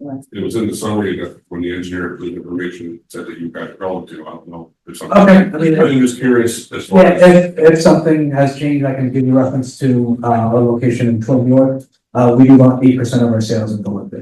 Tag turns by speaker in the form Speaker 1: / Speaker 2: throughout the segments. Speaker 1: Right.
Speaker 2: It was in the summary that when the engineer approved the information, said that you guys called to, I don't know. if something-
Speaker 3: Okay, I mean,
Speaker 2: I'm just curious as far
Speaker 3: Yeah,
Speaker 2: as.
Speaker 3: if, if something has changed, I can give you reference to, uh, our location in Twin York. Uh, we do about eight percent of our sales in Duluth.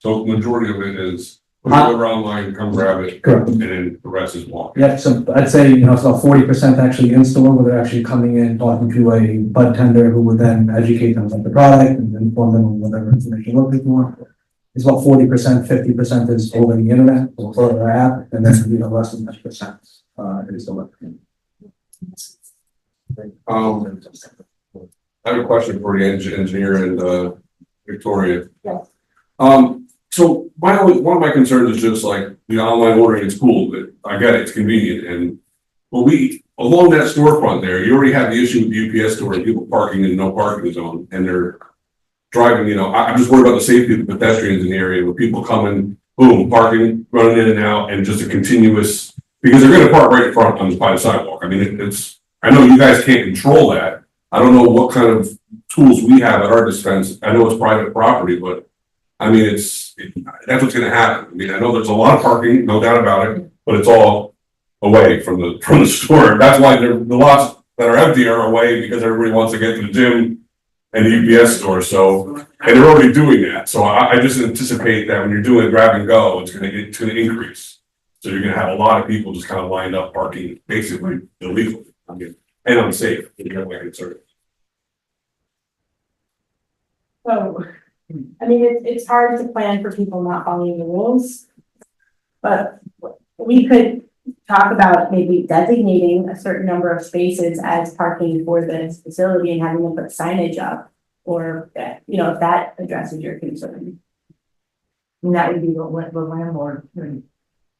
Speaker 2: So the majority of it is, put it
Speaker 3: Huh?
Speaker 2: over online, come grab it,
Speaker 3: Uh-huh. Correct.
Speaker 2: and then the rest is walk.
Speaker 3: Yep, so I'd say, you know, it's about forty percent actually in store, where they're actually coming in, talking to a bud tender who would then educate them about the product and inform them on whatever information they're looking for. It's about forty percent, fifty percent is over the internet or their app, and then, you know, less than that percent, uh, is the.
Speaker 2: Um, I have a question for the eng- engineer and, uh, Victoria.
Speaker 1: Yes.
Speaker 2: Um, so my only, one of my concerns is just like, the online ordering is cool, but I get it, it's convenient and. But we, along that storefront there, you already have the issue with the UPS store and people parking in no parking zone and they're. Driving, you know, I, I'm just worried about the safety of the pedestrians in the area with people coming, boom, parking, running in and out and just a continuous. Because they're gonna park right in front on the, by the sidewalk. I mean, it- it's, I know you guys can't control that. I don't know what kind of tools we have at our dispense, I know it's private property, but I mean, it's, it- that's what's gonna happen. I mean, I know there's a lot of parking, no doubt about it, but it's all away from the, from the store. That's why there, the lots that are empty are away because everybody wants to get to the gym and the UPS store, so, and they're already doing that. So I, I just anticipate that when you're doing grab and go, it's gonna, it's gonna increase. So you're gonna have a lot of people just kind of lined up parking basically illegally, I mean, and unsafe, you know, like it's sort of-
Speaker 1: So, I mean, it's, it's hard to plan for people not following the rules. But we could talk about maybe designating a certain number of spaces as parking for this facility and having them put signage up. Or, uh, you know, if that addresses your concern. And that would be the, la- the landlord. would-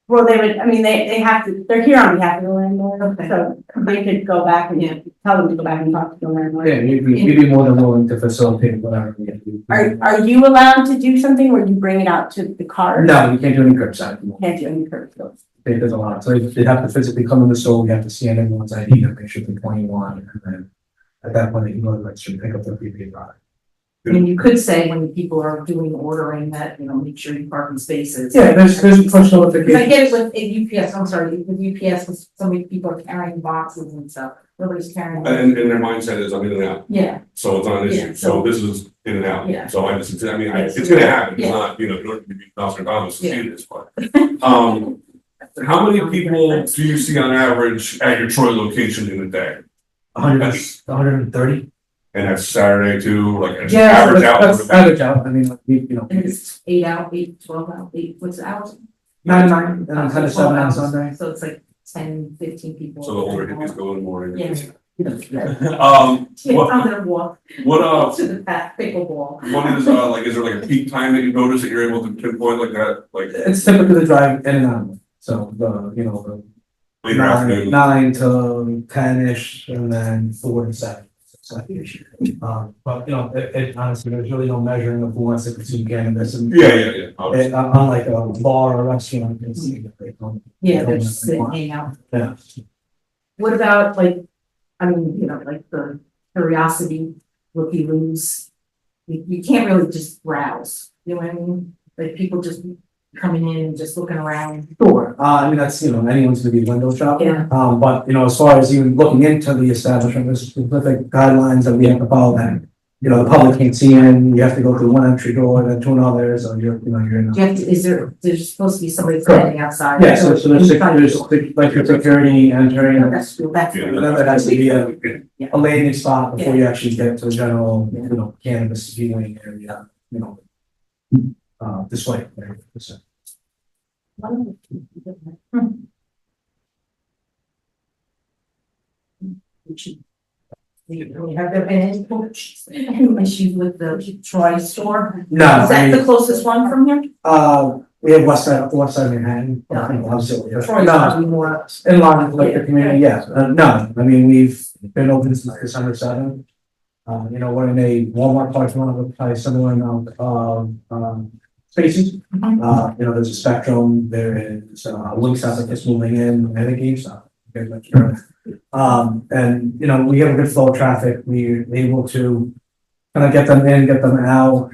Speaker 1: Well, they would, I mean, they, they have to, they're here on behalf of the landlord,
Speaker 4: Okay.
Speaker 1: so they could go back and tell them to go back and talk to the landlord.
Speaker 3: Yeah, you'd be, you'd be more than willing to facilitate whatever. we have to do.
Speaker 1: Are, are you allowed to do something where you bring it out to the car?
Speaker 3: No, you can't do any curbside. no.
Speaker 1: Can't do any curb appeals.
Speaker 3: They- There's a lot, so they have to physically come in the store, we have to scan everyone's ID to make sure they're twenty-one, and then at that point, they can go to the register and pick up their prepaid product.
Speaker 4: I mean, you could say when people are doing ordering that, you know, make sure you park in spaces.
Speaker 3: Yeah, there's, there's push
Speaker 4: Because I
Speaker 3: notification.
Speaker 4: get it with a UPS, I'm sorry, with UPS, with so many people are carrying boxes and stuff, nobody's carrying.
Speaker 2: And, and their mindset is I'm in and out,
Speaker 4: Yeah,
Speaker 2: so it's not an
Speaker 4: Yeah,
Speaker 2: issue,
Speaker 4: so-
Speaker 2: so this is in and
Speaker 4: Yeah.
Speaker 2: out, so I just, I mean, I-
Speaker 4: Yes.
Speaker 2: it's gonna happen, it's
Speaker 4: Yeah.
Speaker 2: not, you know, you don't need to be Nostradamus to
Speaker 4: Yeah.
Speaker 2: see this, but. Um, how many people do you see on average at your Troy location in a day?
Speaker 3: hundred, hundred and thirty?
Speaker 2: And that's Saturday too, like, it's
Speaker 3: Yeah,
Speaker 2: average
Speaker 3: that's,
Speaker 2: out,
Speaker 3: that's average out, I mean, like, we- you know,
Speaker 4: and it's eight out, eight, twelve out, eight, what's the hours?
Speaker 3: nine, nine, and then kind of uh,
Speaker 4: Twelve
Speaker 3: seven on
Speaker 4: hours.
Speaker 3: Sunday.
Speaker 4: So it's like ten, fifteen people.
Speaker 2: so the older hippies go in the morning.
Speaker 3: Yeah.
Speaker 2: Um,
Speaker 4: Yeah,
Speaker 2: what,
Speaker 4: I'm gonna walk
Speaker 2: what, uh,
Speaker 4: to the path, pickleball.
Speaker 2: what is, uh, like, is there like a peak time that you notice that you're able to pinpoint like that, like
Speaker 3: It's typically the drive in and out, so the, you know, the
Speaker 2: later
Speaker 3: nine,
Speaker 2: afternoon?
Speaker 3: nine to ten-ish, and then four to seven. So, Um, but, you know, it, it honestly, there's really no measuring of who wants to consume cannabis and.
Speaker 2: Yeah, yeah, yeah. obviously.
Speaker 3: It, uh, unlike a bar or restaurant, it's.
Speaker 4: Yeah, they're just sitting, hanging out.
Speaker 3: Yeah.
Speaker 4: What about like, I mean, you know, like the curiosity, looky loos? You, you can't really just browse, you know what I mean? Like people just coming in and just looking around.
Speaker 3: Sure, uh, I mean, that's, you know, anyone's gonna be window shopping.
Speaker 4: Yeah.
Speaker 3: Um, but, you know, as far as even looking into the establishment, there's specific guidelines that we have to follow that. You know, the public can't see in, you have to go through one entry door, then to another, so you're, you know, you're in.
Speaker 4: Do you have to, is there, there's supposed to be somebody
Speaker 3: Correct.
Speaker 4: standing outside?
Speaker 3: Yeah, so, so there's,
Speaker 4: You
Speaker 3: sec-
Speaker 4: find-
Speaker 3: there's, sec- like, your security entering, and
Speaker 4: That's, that's.
Speaker 2: Yeah.
Speaker 3: then there has to be a, a landing spot before you actually get to the general, you know, cannabis viewing area, you know. Uh, display. area, so.
Speaker 4: We have there been any coach, any issues with the Troy store?
Speaker 3: No,
Speaker 4: Is
Speaker 3: I
Speaker 4: that the
Speaker 3: mean,
Speaker 4: closest one from here?
Speaker 3: uh, we have west side, west side of Manhattan,
Speaker 4: Yeah.
Speaker 3: I think, obviously, yeah.
Speaker 4: Troy's
Speaker 3: No,
Speaker 4: probably more,
Speaker 3: in line with like the community, yes, uh, no, I mean, we've been open since December seventh. Um, you know, we're in a Walmart parking lot with probably similar amount of, um, spaces.
Speaker 4: Mhm.
Speaker 3: Uh, you know, there's a Spectrum, there is, uh, Link's out that's moving in, and a GameStop. very much sure. Um, and, you know, we have a good flow of traffic, we're able to kind of get them in, get them out,